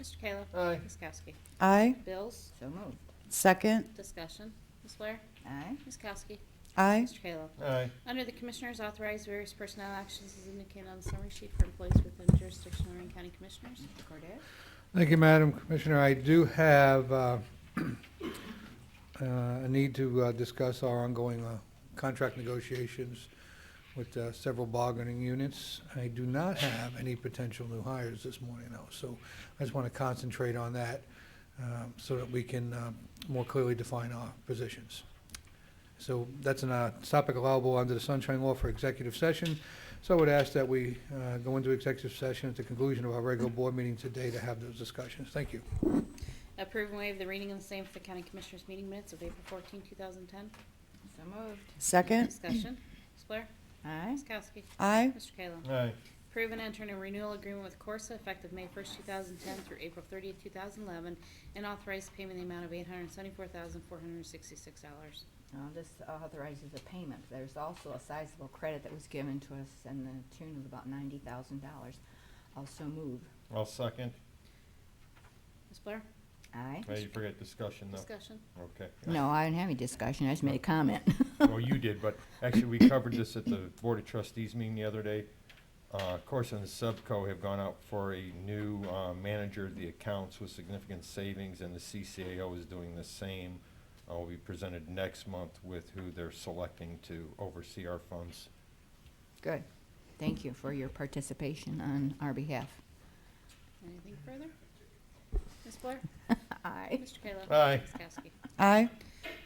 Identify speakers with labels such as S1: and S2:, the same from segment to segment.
S1: Mr. Kayla.
S2: Aye.
S1: Ms. Kowski.
S3: Aye.
S1: Bills,
S4: So moved.
S3: Second.
S1: discussion. Ms. Blair.
S4: Aye.
S1: Ms. Kowski.
S3: Aye.
S1: Mr. Kayla.
S2: Aye.
S1: Under the Commissioners, authorize various personnel actions as indicated on the summary sheet for employees within jurisdiction of Lorraine County Commissioners. Mr. Cordez.
S2: Thank you, Madam Commissioner. I do have uh, uh, a need to uh, discuss our ongoing uh, contract negotiations with uh, several bargaining units. I do not have any potential new hires this morning, though, so I just want to concentrate on that um, so that we can um, more clearly define our positions. So that's a topic allowable under the Sunshine Law for executive session. So I would ask that we uh, go into executive session at the conclusion of our regular board meeting today to have those discussions. Thank you.
S1: Approve and waive the reading and the same for the County Commissioners meeting minutes of April 14, 2010.
S4: So moved.
S3: Second.
S1: Discussion. Ms. Blair.
S4: Aye.
S1: Ms. Kowski.
S3: Aye.
S1: Mr. Kayla.
S5: Aye.
S1: Approve and enter a renewal agreement with Corsa effective May 1st, 2010 through April 30th, 2011, and authorize payment in the amount of $874,466.
S4: Now, this authorizes a payment. There's also a sizable credit that was given to us in the tune of about ninety thousand dollars. Also move.
S5: I'll second.
S1: Ms. Blair?
S4: Aye.
S5: Hey, you forget discussion though.
S1: Discussion.
S5: Okay.
S4: No, I didn't have any discussion. I just made a comment.
S5: Well, you did, but actually, we covered this at the Board of Trustees meeting the other day. Uh, Corson and Subco have gone out for a new, uh, manager of the accounts with significant savings, and the CCAO is doing the same. Uh, will be presented next month with who they're selecting to oversee our funds.
S4: Good. Thank you for your participation on our behalf.
S1: Anything further? Ms. Blair?
S4: Aye.
S1: Mr. Kayla?
S5: Aye.
S1: Ms. Kowski?
S3: Aye.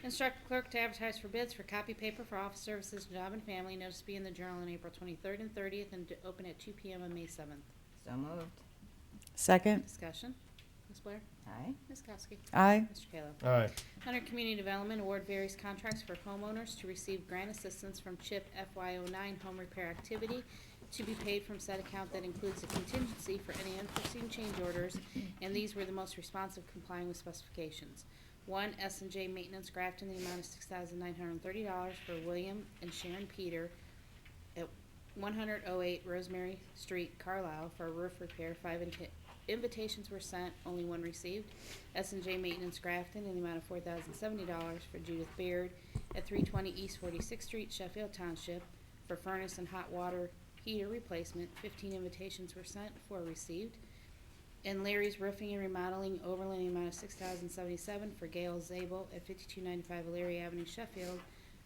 S1: Instruct clerk to advertise for bids for copy paper for office services, job and family, notice to be in the Journal on April 23rd and 30th, and to open at 2 PM on May 7th.
S4: So moved.
S3: Second.
S1: Discussion. Ms. Blair?
S4: Aye.
S1: Ms. Kowski?
S3: Aye.
S1: Mr. Kayla?
S5: Aye.
S1: Under Community Development, award various contracts for homeowners to receive grant assistance from CHIP FY09 home repair activity to be paid from said account that includes a contingency for any unforeseen change orders, and these were the most responsive complying with specifications. One, s and J Maintenance Grafton, the amount of $6,930 for William and Sharon Peter at 108 Rosemary Street, Carlisle, for a roof repair. Five invi- invitations were sent, only one received. s and J Maintenance Grafton in the amount of $4,070 for Judith Beard at 320 East 46th Street, Sheffield Township, for furnace and hot water heater replacement. 15 invitations were sent, four received. And Larry's Roofing and Remodeling Overland, the amount of six thousand seventy-seven for Gail Zabel at fifty-two ninety-five Larry Avenue, Sheffield,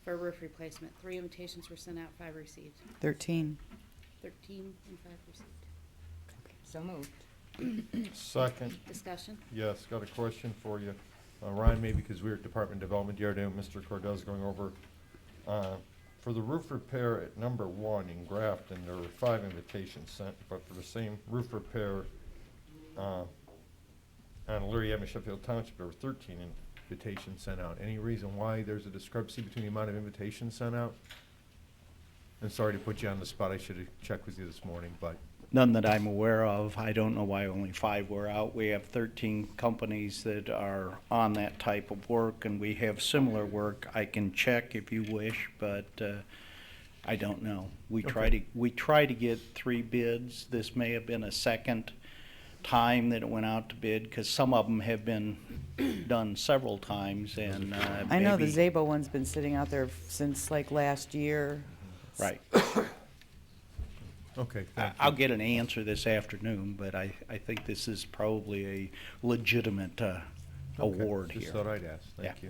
S1: for a roof replacement. Three invitations were sent out, five received.
S3: Thirteen.
S1: Thirteen and five received.
S4: So moved.
S5: Second.
S1: Discussion.
S5: Yes, got a question for you. Uh, Ryan, maybe because we were at Department of Development the other day, and Mr. Cordez going over, uh, for the roof repair at number one in Grafton, there were five invitations sent, but for the same roof repair uh, on Leary Avenue, Sheffield Township, there were thirteen invitations sent out. Any reason why there's a discrepancy between the amount of invitations sent out? And sorry to put you on the spot, I should have checked with you this morning, but
S6: None that I'm aware of. I don't know why only five were out. We have 13 companies that are on that type of work, and we have similar work. I can check if you wish, but uh, I don't know. We try to, we try to get three bids. This may have been a second time that it went out to bid, because some of them have been done several times, and uh,
S3: I know the
S6: maybe-
S3: Zabo one's been sitting out there since like last year.
S6: Right.
S5: okay,
S6: I-
S5: thank you.
S6: I'll get an answer this afternoon, but I, I think this is probably a legitimate uh,
S5: Okay,
S6: award
S5: Just
S6: here.
S5: thought I'd ask, thank
S6: Yeah.
S5: you.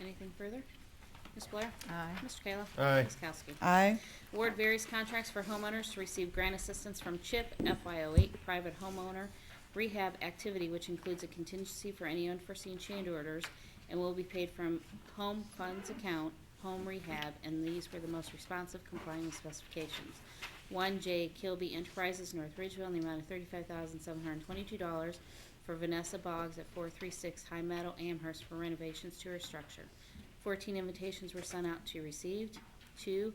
S1: Anything further? Ms. Blair?
S4: Aye.
S1: Mr. Kayla?
S5: Aye.
S1: Ms. Kowski?
S3: Aye.
S1: Award various contracts for homeowners to receive grant assistance from CHIP FY08 Private Homeowner Rehab Activity, which includes a contingency for any unforeseen change orders and will be paid from Home Funds Account, Home Rehab, and these were the most responsive complying with specifications. One J Kilby Enterprises, North Ridgeville, in the amount of thirty-five thousand seven hundred and twenty-two dollars for Vanessa Boggs at four three six High Meadow Amherst for renovations to her structure. Fourteen invitations were sent out, two received. Two,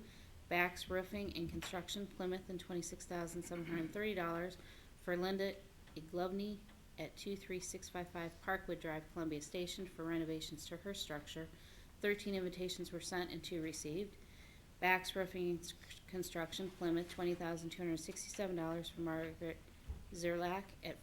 S1: Bax Roofing and Construction Plymouth and twenty-six thousand seven hundred and thirty dollars for Linda Iglovny at two-three-six-five-five Parkwood Drive, Columbia Station for renovations to her structure. Thirteen invitations were sent and two received. Bax Roofing and S- Construction Plymouth, twenty thousand two hundred and sixty-seven dollars for Margaret Zerlak at